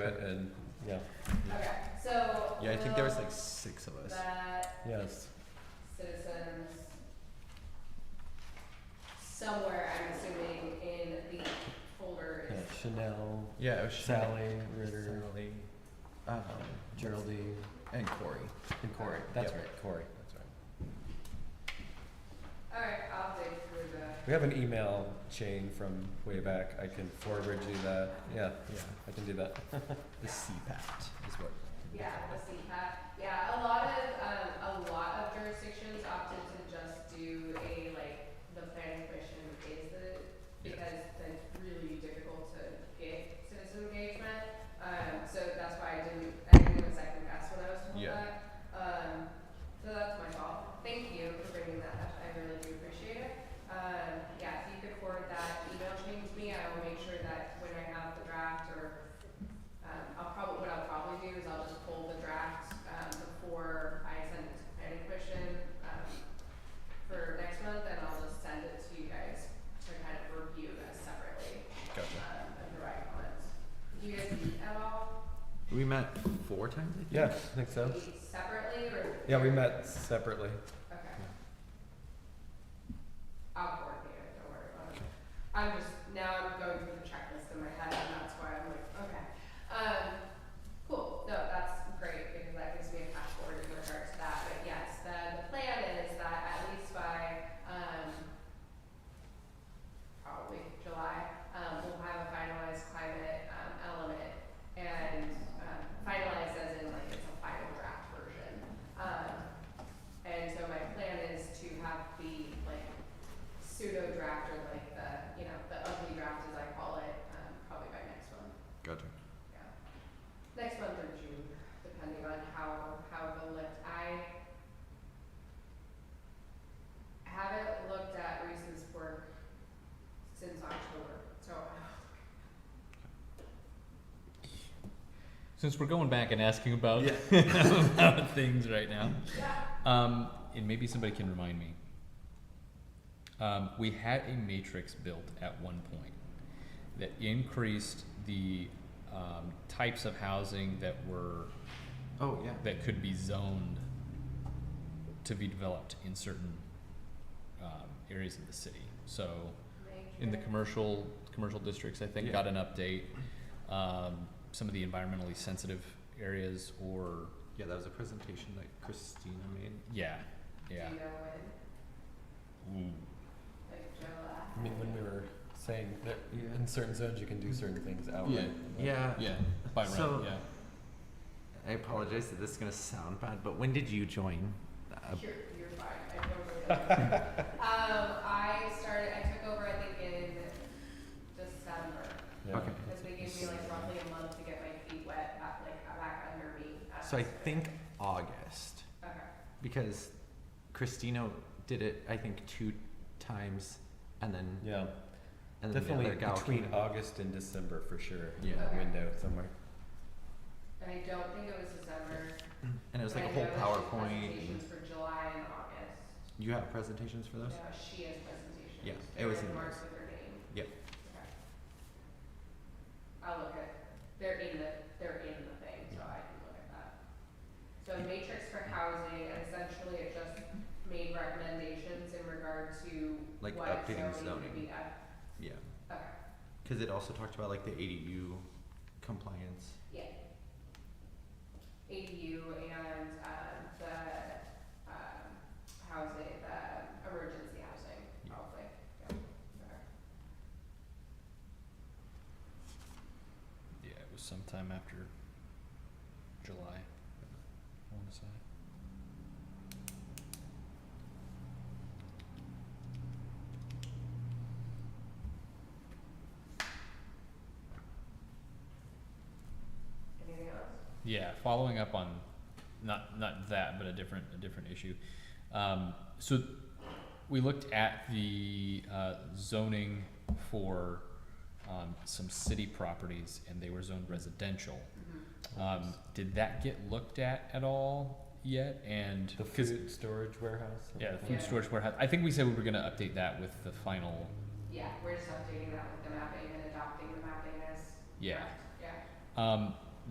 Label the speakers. Speaker 1: it and, yeah,
Speaker 2: Okay, so.
Speaker 1: yeah, I think there was
Speaker 2: will
Speaker 1: like six of us.
Speaker 2: That
Speaker 1: Yes,
Speaker 2: citizens somewhere, I'm assuming, in the folder
Speaker 3: Yeah,
Speaker 2: is.
Speaker 3: Chanel,
Speaker 1: yeah, it was Chanel,
Speaker 3: Sally, Ritter,
Speaker 1: Sally, um,
Speaker 3: Geraldine,
Speaker 1: and Corey.
Speaker 3: and Corey. That's
Speaker 1: Yep,
Speaker 3: right.
Speaker 1: Corey, that's right.
Speaker 2: Alright, I'll dig through the,
Speaker 1: We have an email chain from way back. I can forward you that. Yeah,
Speaker 3: Yeah.
Speaker 1: I can do that. the CPAT is what. we
Speaker 2: yeah,
Speaker 1: call
Speaker 2: the
Speaker 1: it.
Speaker 2: CPAP. Yeah, a lot of, um, a lot of jurisdictions opted to just do a, like, the planning commission is the,
Speaker 1: Yeah.
Speaker 2: because then it's really difficult to get citizen engagement. Um, so that's why I didn't, I didn't even second guess when I was told
Speaker 1: Yeah.
Speaker 2: that. Um, so that's my fault. Thank you for bringing that up. I really do appreciate it. Um, yeah, if you could forward that email chain to me, I will make sure that when I have the draft or, um, I'll probably, what I'll probably do is I'll just pull the draft, um, before I send it to planning commission, um, for next month, and I'll just send it to you guys to kind of review as separately,
Speaker 1: Gotcha.
Speaker 2: um, and provide comments. Do you guys meet at all?
Speaker 3: We met four times, I think.
Speaker 1: Yeah, I think so.
Speaker 2: Meet separately or?
Speaker 1: Yeah, we met separately.
Speaker 2: Okay. I'll coordinate it, don't worry about it. I'm just, now I'm going through the checklist in my head and that's why I'm like, okay. Um, cool, no, that's great because that gives me a path forward in regards to that, but yes, the, the plan is that at least by, um, probably July, um, we'll have a finalized climate, um, element and, um, finalized as in like it's a final draft version. Um, and so my plan is to have the like pseudo draft or like the, you know, the ugly draft as I call it, um, probably by next month,
Speaker 3: Gotcha.
Speaker 2: yeah. Next month or June, depending on how, how the lift, I haven't looked at Reese's work since October, so
Speaker 4: Since we're going back and asking about, about things right now, um, and maybe somebody can remind me. Um, we had a matrix built at one point that increased the um, types of housing that were
Speaker 3: Oh, yeah.
Speaker 4: that could be zoned to be developed in certain um, areas of the city. So in the
Speaker 2: Matrix.
Speaker 4: commercial, commercial districts, I think,
Speaker 3: Yeah.
Speaker 4: got an update. Um, some of the environmentally sensitive areas or,
Speaker 3: Yeah, that was a presentation that Christina made.
Speaker 4: yeah,
Speaker 2: Do
Speaker 4: yeah.
Speaker 2: you know when,
Speaker 4: Ooh.
Speaker 2: like July?
Speaker 1: I mean, when we were saying that
Speaker 3: Yeah.
Speaker 1: in certain zones you can do certain things outright. but-
Speaker 3: Yeah.
Speaker 4: Yeah, by right,
Speaker 3: So-
Speaker 4: yeah.
Speaker 3: I apologize that this is going to sound bad, but when did you join? Uh,
Speaker 2: You're, you're fine, I don't really. Um, I started, I took over, I think, in December,
Speaker 1: Yeah.
Speaker 3: Okay.
Speaker 2: because they gave me like roughly a month to get my feet wet, uh, like uh, back under me. uh,
Speaker 3: So I think August,
Speaker 2: Okay,
Speaker 3: because Christina did it, I think, two times, and then,
Speaker 1: Yeah,
Speaker 3: and then the
Speaker 1: definitely
Speaker 3: other gal
Speaker 1: between
Speaker 3: came.
Speaker 1: August and December for sure.
Speaker 3: Yeah.
Speaker 1: That
Speaker 2: Okay.
Speaker 1: window somewhere.
Speaker 2: and I don't think it was December.
Speaker 3: And it was
Speaker 2: but
Speaker 3: like a
Speaker 2: I
Speaker 3: whole
Speaker 2: know that she has
Speaker 3: PowerPoint. and-
Speaker 2: Presentations for July and August.
Speaker 3: You have presentations for those?
Speaker 2: No, Uh, she has presentations.
Speaker 3: Yeah, it
Speaker 2: They're
Speaker 3: was
Speaker 2: in
Speaker 3: in
Speaker 2: marks with her name.
Speaker 3: Yep.
Speaker 2: Okay. I'll look at, they're in the, they're in the thing, so I can look at that. So matrix for housing, and essentially it just made recommendations in regard to
Speaker 3: Like
Speaker 2: what
Speaker 3: updating
Speaker 2: zoning would be up.
Speaker 3: Yeah.
Speaker 2: Okay,
Speaker 3: Because it also talked about like the ADU compliance.
Speaker 2: yeah. ADU and, um, the, um, housing, the emergency housing,
Speaker 3: Yeah.
Speaker 2: probably, yeah, okay.
Speaker 4: Yeah, it was sometime after July, I wanna say.
Speaker 2: Anything else?
Speaker 4: Yeah, following up on not not that, but a different a different issue. Um, so we looked at the uh, zoning for um, some city properties, and they were zoned residential. Um, did that get looked at at all yet? And
Speaker 1: The
Speaker 4: 'cause-
Speaker 1: food storage warehouse.
Speaker 4: yeah, the food
Speaker 2: Yeah.
Speaker 4: storage warehouse. I think we said we were going to update that with the final.
Speaker 2: Yeah, we're just updating that with the mapping and adopting the mapping as.
Speaker 4: Yeah.
Speaker 2: Yeah.
Speaker 4: Um,